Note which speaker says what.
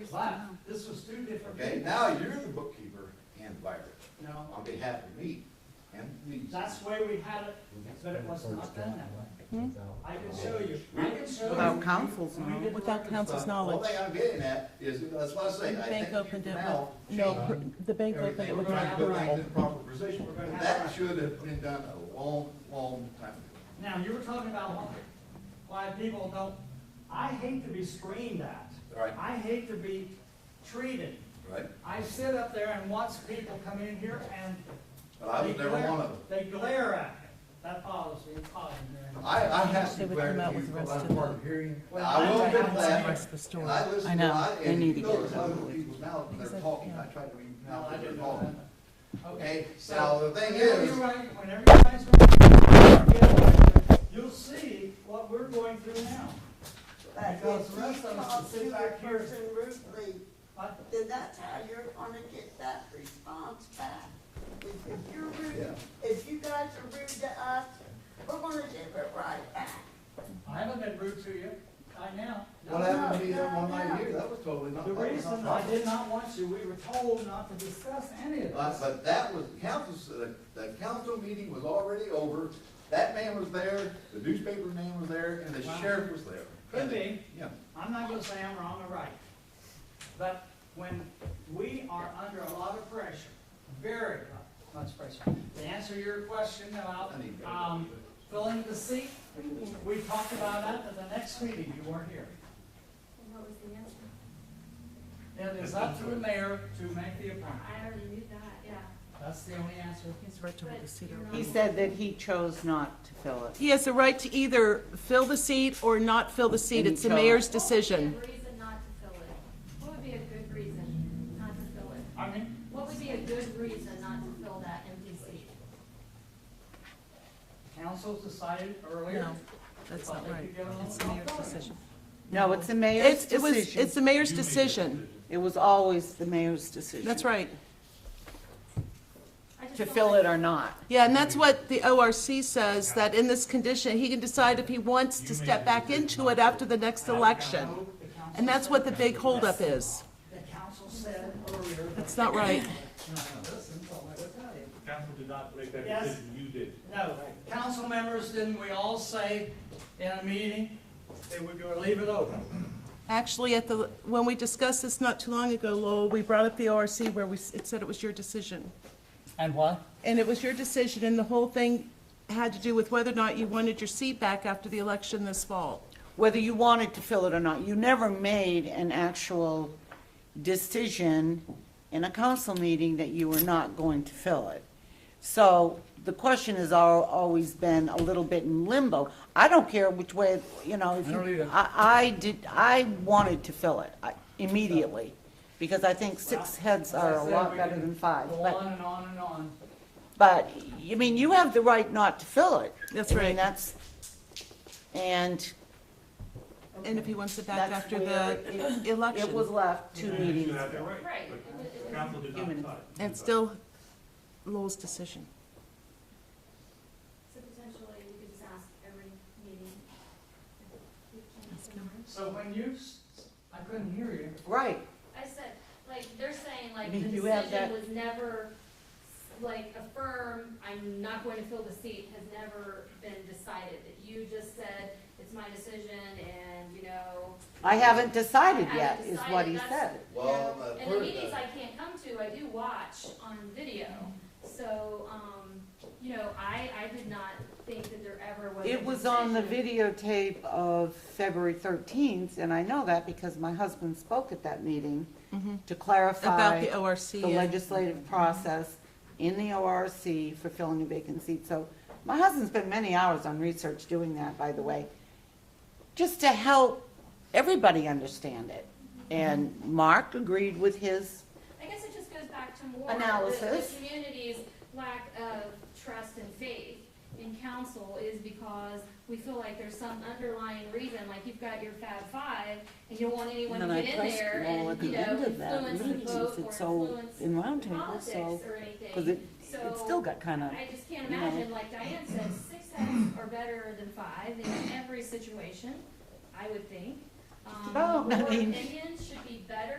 Speaker 1: It's not, this was two different.
Speaker 2: Okay, now you're the bookkeeper and buyer
Speaker 1: No,
Speaker 2: on behalf of me and these.
Speaker 1: that's where we had it, but it was not done that way. I can show you, I can show you.
Speaker 3: Without councils,
Speaker 1: We didn't
Speaker 4: Without
Speaker 1: reconcile.
Speaker 4: council's
Speaker 2: All
Speaker 4: knowledge.
Speaker 2: thing I'm getting at is, that's what I say,
Speaker 4: The
Speaker 2: I
Speaker 4: bank
Speaker 2: think you
Speaker 4: opened
Speaker 2: can
Speaker 4: it
Speaker 2: now
Speaker 4: with, no,
Speaker 2: change
Speaker 4: pr- the bank opened it
Speaker 2: everything. We're
Speaker 4: with,
Speaker 2: trying to
Speaker 1: We're
Speaker 2: put
Speaker 1: gonna have
Speaker 2: things
Speaker 1: right.
Speaker 2: in the proper position.
Speaker 1: We're gonna have
Speaker 2: That
Speaker 1: right.
Speaker 2: should have been done a long, long time ago.
Speaker 1: Now, you were talking about why- why people don't, I hate to be screamed at.
Speaker 2: Right.
Speaker 1: I hate to be treated.
Speaker 2: Right.
Speaker 1: I sit up there and watch people come in here and.
Speaker 2: But I was
Speaker 1: they
Speaker 2: never
Speaker 1: glare-
Speaker 2: one of them.
Speaker 1: They glare at me. That bothers me, it bothers me.
Speaker 2: I, I have
Speaker 4: They
Speaker 2: to
Speaker 4: would
Speaker 2: declare
Speaker 4: come out
Speaker 2: to you,
Speaker 4: with the
Speaker 2: but
Speaker 4: rest
Speaker 2: I'm
Speaker 4: of
Speaker 2: part
Speaker 4: the-
Speaker 2: of hearing.
Speaker 1: Well,
Speaker 2: I will
Speaker 1: I-
Speaker 2: admit
Speaker 1: I-
Speaker 2: that.
Speaker 1: Rest
Speaker 4: the story.
Speaker 2: And I listen
Speaker 3: I know.
Speaker 2: to a lot,
Speaker 3: They
Speaker 2: and
Speaker 3: need
Speaker 2: you
Speaker 3: to
Speaker 2: know,
Speaker 3: get
Speaker 2: it's
Speaker 3: that
Speaker 2: other
Speaker 3: knowledge.
Speaker 2: people's mouths, and they're
Speaker 4: Exactly,
Speaker 2: talking,
Speaker 4: yeah.
Speaker 2: I try to read
Speaker 1: No,
Speaker 2: out
Speaker 1: I
Speaker 2: what they're
Speaker 1: didn't
Speaker 2: talking.
Speaker 1: know that.
Speaker 2: Okay,
Speaker 1: so
Speaker 2: now the thing
Speaker 1: whenever
Speaker 2: is-
Speaker 1: you write- Whenever you guys write, you'll see what we're going through now. Because the rest of us sit back here.
Speaker 5: person rudely,
Speaker 1: But
Speaker 5: then that's how you're gonna get that response back. If if you're
Speaker 2: Yeah.
Speaker 5: rude, if you guys are rude to us, we're gonna give it right back.
Speaker 1: I haven't been rude to you, I now.
Speaker 2: What happened to me
Speaker 5: no,
Speaker 2: that one
Speaker 5: no.
Speaker 2: night here, that was totally not.
Speaker 1: The
Speaker 2: that was not
Speaker 1: reason I
Speaker 2: proper.
Speaker 1: did not want you, we were told not to discuss any of
Speaker 2: But,
Speaker 1: this.
Speaker 2: but that was, council, the, the council meeting was already over, that man was there, the newspaper man was there, and the
Speaker 1: Wow.
Speaker 2: sheriff was there.
Speaker 1: Could be.
Speaker 2: Yeah,
Speaker 1: I'm not gonna say I'm wrong or right. But when we are under a lot of pressure, very much pressure, to answer your question about,
Speaker 2: I need to go.
Speaker 1: um, filling the seat, we talked about that at the next meeting, you weren't here.
Speaker 6: And what was the answer?
Speaker 1: It is up to the mayor to make the appointment,
Speaker 6: I already knew that, yeah.
Speaker 1: that's the only answer.
Speaker 4: He's right to the cedar.
Speaker 3: He said that he chose not to fill it.
Speaker 4: He has the right to either fill the seat or not fill the seat.
Speaker 3: And he
Speaker 4: It's the
Speaker 3: chose-
Speaker 4: mayor's
Speaker 6: What
Speaker 4: decision.
Speaker 6: would be a reason not to fill it? What would be a good reason not to fill it?
Speaker 1: I mean,
Speaker 6: What would be a good reason not to fill that empty seat?
Speaker 1: council decided earlier.
Speaker 4: No, that's not right. It's the mayor's decision.
Speaker 3: No, it's the mayor's
Speaker 4: It's, it was,
Speaker 3: decision.
Speaker 4: it's the mayor's decision.
Speaker 3: It was always the mayor's decision.
Speaker 4: That's right.
Speaker 6: I just
Speaker 3: To
Speaker 6: don't
Speaker 3: fill
Speaker 6: like-
Speaker 3: it or not.
Speaker 4: Yeah, and that's what the ORC says, that in this condition, he can decide if he wants to step back into it after the next election. And that's what the big holdup is.
Speaker 1: The council said earlier.
Speaker 4: It's not right.
Speaker 1: No, no, listen, don't let it tell you.
Speaker 7: Council did not make that
Speaker 1: Yes.
Speaker 7: decision, you did.
Speaker 1: No, council members, didn't we all say in a meeting that we were gonna leave it open?
Speaker 4: Actually, at the, when we discussed this not too long ago, Lowell, we brought up the ORC where we, s- it said it was your decision.
Speaker 1: And what?
Speaker 4: And it was your decision, and the whole thing had to do with whether or not you wanted your seat back after the election this fall.
Speaker 3: Whether you wanted to fill it or not, you never made an actual decision in a council meeting that you were not going to fill it. So the question has al- always been a little bit in limbo. I don't care which way, you know, if you, I, I did, I wanted to fill it I- immediately, because I think six heads are a lot better than five,
Speaker 1: Go
Speaker 3: but.
Speaker 1: on and on and on.
Speaker 3: But, I mean, you have the right not to fill it.
Speaker 4: That's
Speaker 3: I
Speaker 4: right.
Speaker 3: mean, that's, and
Speaker 4: And if he wants it back
Speaker 3: That's
Speaker 4: after
Speaker 3: where
Speaker 4: the
Speaker 3: it- it was
Speaker 4: election.
Speaker 3: left two
Speaker 7: And You
Speaker 3: meetings.
Speaker 7: have that right.
Speaker 6: Right.
Speaker 7: But Council did not
Speaker 3: Human.
Speaker 7: decide.
Speaker 4: And still Lowell's decision.
Speaker 6: So potentially, you could just ask every meeting. if you can fill it.
Speaker 1: So when you, s- I couldn't hear you.
Speaker 3: Right,
Speaker 6: I said, like, they're saying, like, the
Speaker 3: You have
Speaker 6: decision
Speaker 3: that-
Speaker 6: was never, like, a firm, I'm not going to fill the seat, has never been decided. You just said, it's my decision, and, you know.
Speaker 3: I haven't decided
Speaker 6: I
Speaker 3: yet,
Speaker 6: haven't
Speaker 3: is what he
Speaker 6: decided, that's-
Speaker 3: said.
Speaker 2: Well, I've
Speaker 6: And the
Speaker 2: heard
Speaker 6: meetings
Speaker 2: that.
Speaker 6: I can't come to, I do watch on video, so, um, you know, I, I did not think that there ever was a
Speaker 3: It was on the
Speaker 6: decision.
Speaker 3: videotape of February thirteenth, and I know that because my husband spoke at that meeting
Speaker 6: Mm-hmm.
Speaker 3: to
Speaker 4: About
Speaker 3: clarify
Speaker 4: the ORC.
Speaker 3: the legislative process in the ORC for filling a vacant seat. So my husband spent many hours on research doing that, by the way, just to help everybody understand it. And Mark agreed with his,
Speaker 6: I guess it just goes back to more. the-
Speaker 3: Analysis.
Speaker 6: The community's lack of trust and faith in council is because we feel like there's some underlying reason, like you've got your Fab Five, and you don't want anyone to
Speaker 3: And then I
Speaker 6: get in
Speaker 3: pressed
Speaker 6: there
Speaker 3: Noel
Speaker 6: and,
Speaker 3: at
Speaker 6: you
Speaker 3: the
Speaker 6: know,
Speaker 3: end of that
Speaker 6: influence
Speaker 3: meeting,
Speaker 6: the vote
Speaker 3: it's all
Speaker 6: or
Speaker 3: in round
Speaker 6: influence
Speaker 3: table,
Speaker 6: politics
Speaker 3: so-
Speaker 6: or
Speaker 3: because it,
Speaker 6: anything.
Speaker 3: it still got kind of,
Speaker 6: I just can't
Speaker 3: you know.
Speaker 6: imagine, like Diane said, six heads are better than five in every situation, I would think. Um,
Speaker 3: Well, I
Speaker 6: board
Speaker 3: mean-
Speaker 6: opinions should be better